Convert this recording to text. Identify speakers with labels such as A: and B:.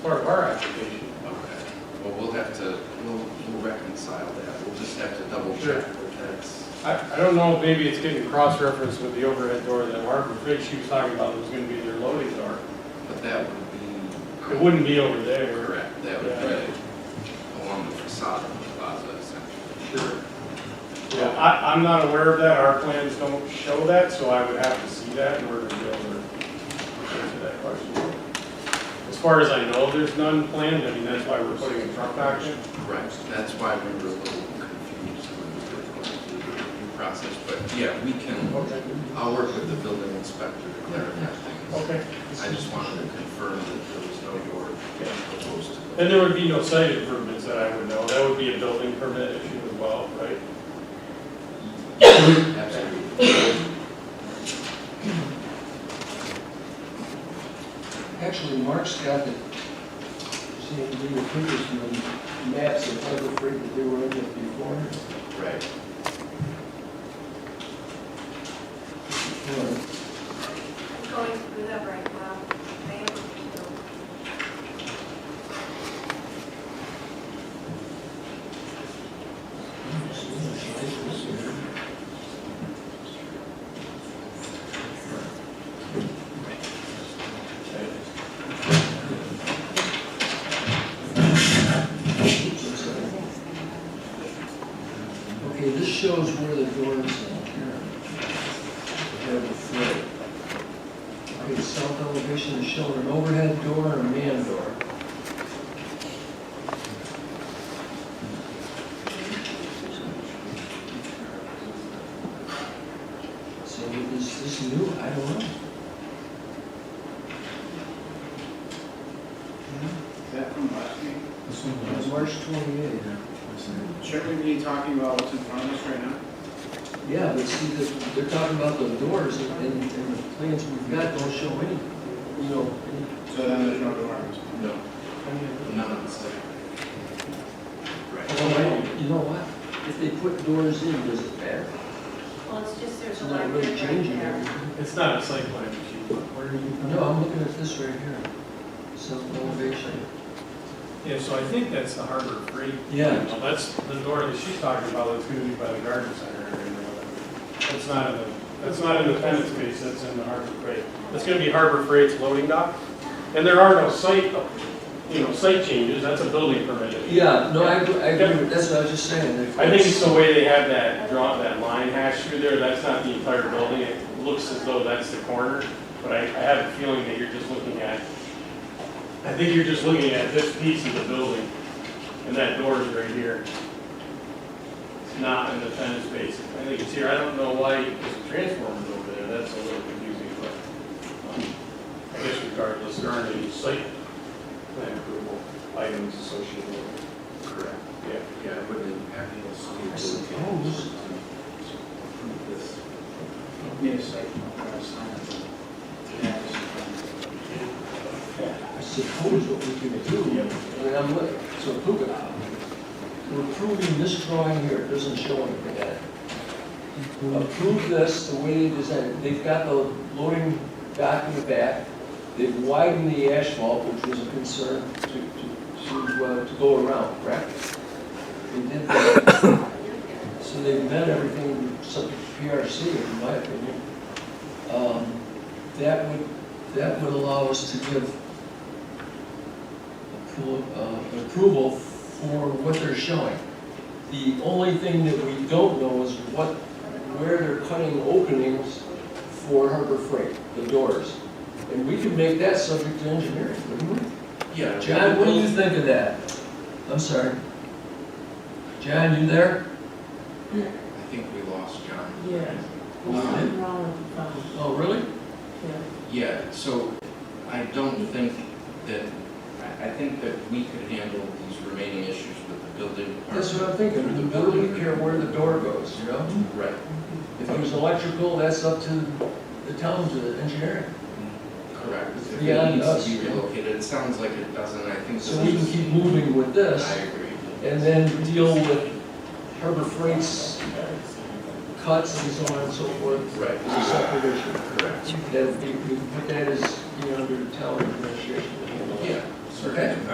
A: part of our application.
B: Okay, well, we'll have to, we'll we'll reconcile that, we'll just have to double
A: Sure.
B: check with that.
A: I, I don't know, maybe it's getting cross-referenced with the overhead door that Margaret Fitch, she was talking about was gonna be their loading door.
B: But that would be.
A: It wouldn't be over there.
B: Correct, that would be along the facade of the plaza essentially.
A: Sure. Yeah, I, I'm not aware of that, our plans don't show that, so I would have to see that in order to be able to answer that question. As far as I know, there's none planned, I mean, that's why we're putting a truck back in.
B: Correct, that's why we were a little confused when we were going through the review process, but yeah, we can,
A: Okay.
B: I'll work with the building inspector to clarify things.
A: Okay.
B: I just wanted to confirm that there was no door proposed to
A: And there would be no site improvements that I would know, that would be a building permit issue as well, right?
B: the. Absolutely.
C: Actually, Mark's got the, see, if we were previous from the maps of Pleasant Creek that they were in it before.
B: Right,
C: Or-
D: going through that right now. I am, so.
C: Okay, this shows where the door is in here. There we go. Okay, south elevation is showing an overhead door and a man door. So is this new? I don't know.
E: That from last meeting?
C: It's March twenty-eighth.
E: Shouldn't we be talking about what's in front of us right now?
C: Yeah, but see, this- they're talking about the doors and, and and the plans we've got don't show any, you know, any
E: So then there's no door.
B: no, none on the site. Right.
C: Well, You know what? If they put doors in, does it matter?
D: Well, it's just there's
C: It's
D: a
C: not
D: library
C: really
D: right
C: changing
D: there.
C: anything.
A: It's not a site plan issue. Where are you
C: No, I'm looking at this right here. South elevation.
A: Yeah, so I think that's the Harbor Freight.
C: Yeah.
A: Well, That's the door that she's talking about, that's gonna be by the garden center area or whatever. That's not in the, that's not in the tenant space, that's in the Harbor Freight. That's gonna be Harbor Freight's loading dock. And there are no site, you know, site changes, that's a building permit. issue.
C: Yeah, no, I, agree- I agree, with- that's what I was just saying. that if
A: I think it's the way they have that draw, that line hash through there, that's not the entire building, it looks as though that's the corner, but I, I have a feeling that you're just looking at, I think you're just looking at this piece of the building, and that door is right here. It's not in the tenant space, I think it's here, I don't know why there's transformers over there, that's a little confusing, but, um, I guess regardless, there aren't any site plan approval items associated with it.
B: Correct.
A: Yeah.
B: Yeah, it wouldn't impact the city.
C: I suppose.
B: This.
E: Need a site. plan, a uh, sign. Yeah, it's a plan.
C: I suppose what we can do, I mean, I'm looking, so look at We're approving this drawing here, it doesn't show anything at it. Approve this the way they designed it. They've got the loading dock in the back. They've widened the asphalt, which was a concern to, to, to, uh, to go around, correct? They did that. So they've met everything subject to PRC, in my opinion. Um, That would, that would allow us to give appro- uh, approval for what they're showing. The only thing that we don't know is what, where they're cutting openings for Harbor Freight, the doors. And we could make that subject to engineering, wouldn't we?
B: Yeah.
C: John, what do you think of that? I'm sorry. John, you there?
B: I think we lost John.
F: Yes.
B: Um,
F: Something wrong with the phone,
C: Oh, really?
F: yeah.
B: Yeah, so I don't think that, I, I think that we could handle these remaining issues with the building. department.
C: That's what I'm thinking, the building care where the door goes, you know?
B: Right,
C: If it was electrical, that's up to the town to engineering.
B: correct. If it
C: Beyond
B: needs to
C: us.
B: be relocated, it sounds like it doesn't, I think.
C: So
B: this
C: we can
B: is-
C: keep moving with this.
B: I agree.
C: and then deal with Harbor Freight's cuts and so on and so forth.
B: Right.
C: As a subdivision,
B: Correct.
C: that we, we put that as, you know, under town administration.
B: Yeah, so
E: certain.
B: Okay.